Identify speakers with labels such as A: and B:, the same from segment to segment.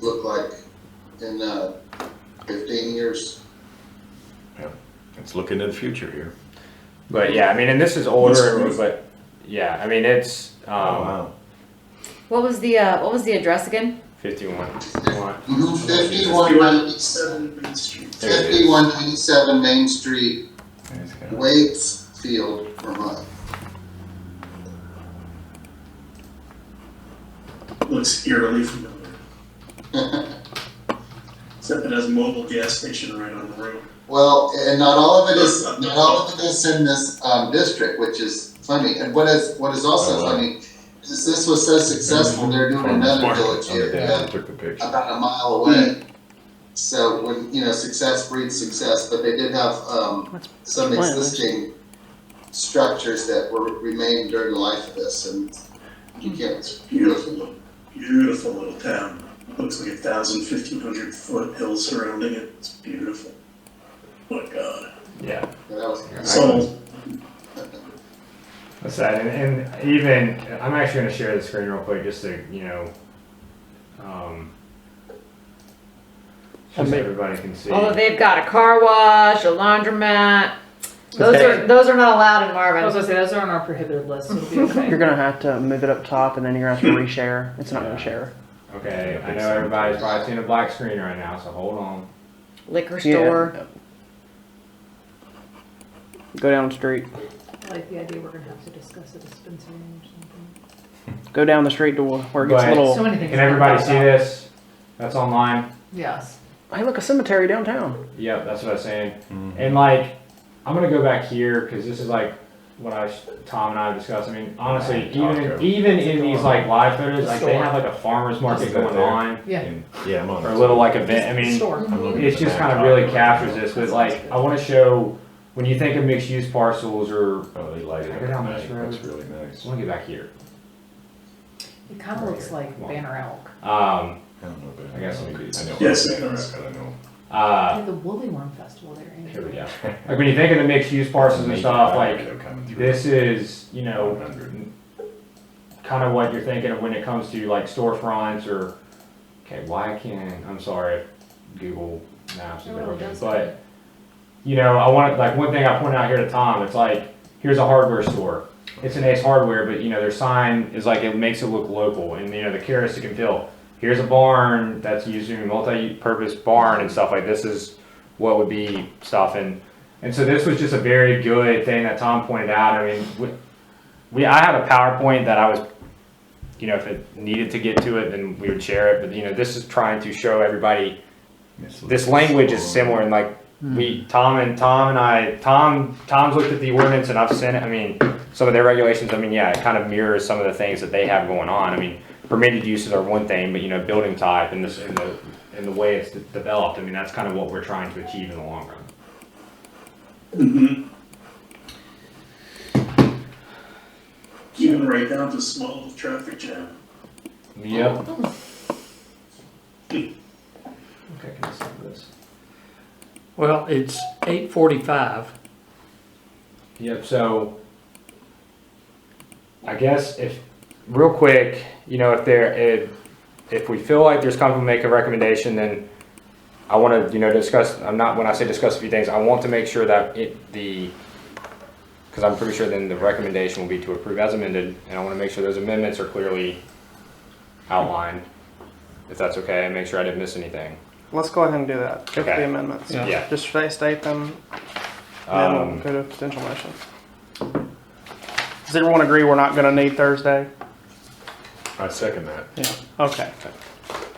A: look like in uh, fifteen years?
B: It's looking to the future here.
C: But yeah, I mean, and this is older, but yeah, I mean, it's um,
D: What was the uh, what was the address again?
C: 51.
A: Fifty-one ninety-seven,
C: Mm-hmm. There it is.
A: fifty-one ninety-seven Main Street,
B: It's kinda-
A: Waitsfield, Vermont.
E: looks eerily familiar. Except it has a mobile gas station right on the road.
A: Well, and not all of it is, not all of it is in this, um, district, which is funny, and what is, what is also
C: Uh-huh.
A: funny, is this was so successful, they're doing another village
B: Oh,
A: here,
B: yeah, I
A: uh,
B: Took the picture.
A: about a mile away. So when, you know, success breeds success, but they did have, um, some existing structures that were, remained during the life of this, and you can't, it's beautiful.
E: Beautiful, beautiful little town. Looks like a thousand, fifteen hundred foot hills surrounding it. It's beautiful. Oh my God.
C: Yeah.
A: That was-
E: So,
C: That's sad. And, and even, I'm actually going to share the screen real quick just to, you know, um, just so everybody can see.
D: Although Oh, they've got a car wash, a laundromat. Those
C: Okay.
D: are those are not allowed in
F: I was
D: Marvin.
F: gonna say those are on our prohibited list. So it'll be okay.
G: You're gonna have to move it up top, and then you're gonna have to reshare. It's not gonna share.
C: Okay, I know everybody's probably seeing a black screen right now, so hold on.
D: Liquor store.
G: Go down the street.
F: I like the idea we're gonna have to discuss a dispensary or something.
G: Go down the street to where it gets a
C: Right.
F: So
G: little.
F: many things.
C: Can
F: to
C: everybody
F: talk
C: see
F: about.
C: this? That's online.
F: Yes.
G: Hey, look, a cemetery downtown.
C: Yep, that's what I was saying.
B: Mhm.
C: And like, I'm gonna go back here because this is like what I, Tom and I discussed. I mean, honestly, even even in these like live photos, like they have like a farmer's market going on
F: Yeah.
B: And- Yeah, I'm on.
C: or a
B: it.
C: little like event. I mean,
F: Store.
B: I'm looking at
C: it
B: the
C: just
B: back
C: kind of really
B: pocket.
C: captures this. But like, I want to show when you think of mixed use parcels or
B: Oh, they light it up.
C: Look at how much
B: at night.
C: room.
B: That's really nice.
C: I want to get back here.
F: Mm-hmm. It kind of looks like Banner Elk.
C: Um,
B: I don't know, but.
C: I guess
B: know
C: we could-
B: I know.
E: Yes,
B: I
E: it does.
B: I don't know.
F: They
C: uh,
F: have the Woolly Worm Festival there. ain't it?
C: here we go. Like when you think of the mixed use parcels and stuff, like this is you know
B: 100.
C: kind of what you're thinking of when it comes to like storefronts or okay why can't i'm sorry if google maps is
F: Oh,
C: broken
F: that's
C: but you know i want like one thing i pointed out here to tom it's like here's a hardware store it's an ace hardware but you know their sign is like it makes it look local and you know the characteristic and feel here's a barn that's using a multi-purpose barn and stuff like this is what would be stuff and and so this was just a very good thing that Tom pointed out. I mean, we, we I had a PowerPoint that I was, you know, if it needed to get to it, then we would share it. But you know, this is trying to show everybody this language is similar and like we Tom and Tom and I Tom Tom's looked at the ordinance and I've sent it. I mean, some of their regulations. I mean, yeah, it kind of mirrors some of the things that they have going on. I mean, permitted uses are one thing, but you know, building type and this and the and the way it's developed. I mean, that's kind of what we're trying to achieve in the long run.
E: mhm. even right down to small little traffic jam.
C: Yep.
E: Hmm.
C: Okay, can I send this?
H: Well, it's eight forty-five.
C: Yep, so I guess if, real quick, you know, if there, if, if we feel like there's comfort make a recommendation, then I wanna, you know, discuss, I'm not, when I say discuss a few things, I want to make sure that it, the, cause I'm pretty sure then the recommendation will be to approve as amended, and I wanna make sure those amendments are clearly outlined, if that's okay, and make sure I didn't miss anything.
G: Let's go ahead and do that. Go for
C: Okay.
G: the amendments.
H: Yeah.
C: Yeah.
G: Just state, state them, and then
C: Um,
G: we'll go to potential motion. Does everyone agree we're not gonna need Thursday?
B: I second that.
G: Yeah. Okay.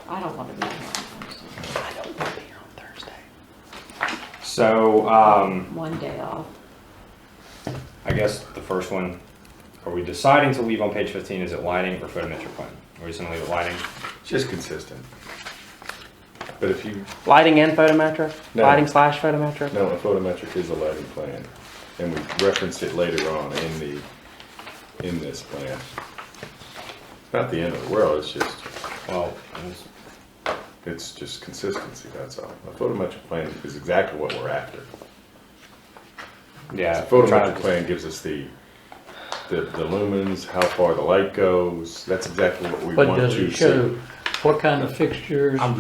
D: I don't want to be. here.
G: I don't want to be here on Thursday.
C: so, um,
D: One day off.
C: I guess the first one, are we deciding to leave on page fifteen, is it lighting or photometric plan? Are we just gonna leave it lighting?
B: Just consistent. But if you,
G: Lighting and photometric.
B: No.
G: Lighting slash photometric.
B: no, a photometric is a lighting plan, and we referenced it later on in the, in this plan. It's not the end of the world, it's just,
C: Well, it's-
B: it's just consistency, that's all. A photometric plan is exactly what we're after.
C: yeah.
B: The
C: trying
B: photometric
C: to-
B: plan gives us the, the the lumens, how far the light goes, that's exactly what we
H: But
B: want
H: does
B: to
H: it
B: see.
H: show what kind of fixtures?